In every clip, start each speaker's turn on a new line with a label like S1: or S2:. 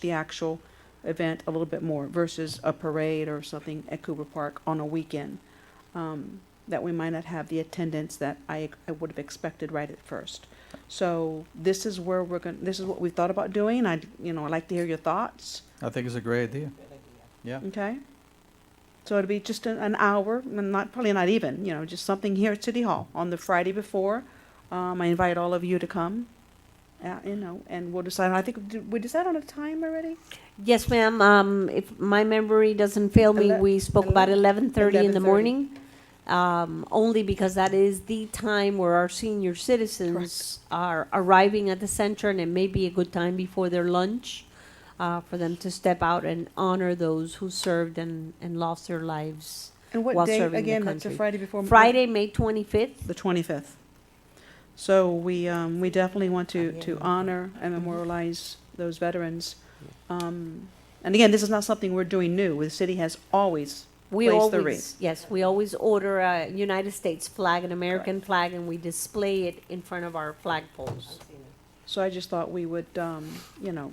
S1: the actual event a little bit more versus a parade or something at Cooper Park on a weekend. Um, that we might not have the attendance that I, I would have expected right at first. So this is where we're going, this is what we thought about doing. I, you know, I'd like to hear your thoughts,
S2: I think it's a great idea. Yeah,
S1: okay? So it'd be just an, an hour, and not, probably not even, you know, just something here at City Hall on the Friday before. Um, I invite all of you to come, uh, you know, and we'll decide, I think, did we decide on a time already?
S3: Yes, ma'am. Um, if my memory doesn't fail me,
S1: Ele-
S3: we spoke about
S1: ele-
S3: eleven thirty in the
S1: 11:30.
S3: morning. Um, only because that is the time where our senior citizens are arriving at the center and it may be a good time before their lunch. Uh, for them to step out and honor those who served and, and lost their lives.
S1: And what
S3: While
S1: day,
S3: serving the
S1: again, that's a
S3: country.
S1: Friday before?
S3: Friday, May twenty-fifth,
S1: The twenty-fifth. So we, um, we definitely want to, to honor and
S3: Mm-hmm.
S1: memorialize those veterans. Um, and again, this is not something we're doing new. The city has always,
S3: we
S1: Place the
S3: always,
S1: wreath.
S3: yes, we always order a United States flag, an American flag, and we display it in front of our flagpoles.
S1: so I just thought we would, um, you know,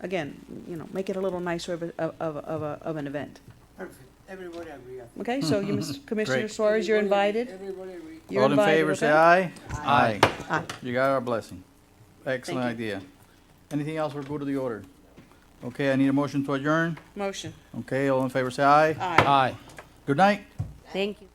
S1: again, you know, make it a little nicer of, a- of, of, of a, of an event.
S4: Perfect, everybody agree. on
S1: Okay, so you, Mr. Commissioner
S2: Mm-hmm. Great.
S1: Suarez, you're
S4: Everybody-
S1: invited.
S4: Everybody agree.
S1: You're
S2: all in
S1: invited,
S2: favor, say
S1: okay?
S2: aye.
S4: Aye.
S1: Aye.
S2: You got our blessing. Excellent
S1: Thank
S2: idea. Anything else, we're good to the order. Okay, I need a motion to adjourn.
S1: Motion.
S2: Okay, all in favor, say aye.
S1: Aye.
S2: Aye. Good night.
S3: Thank you.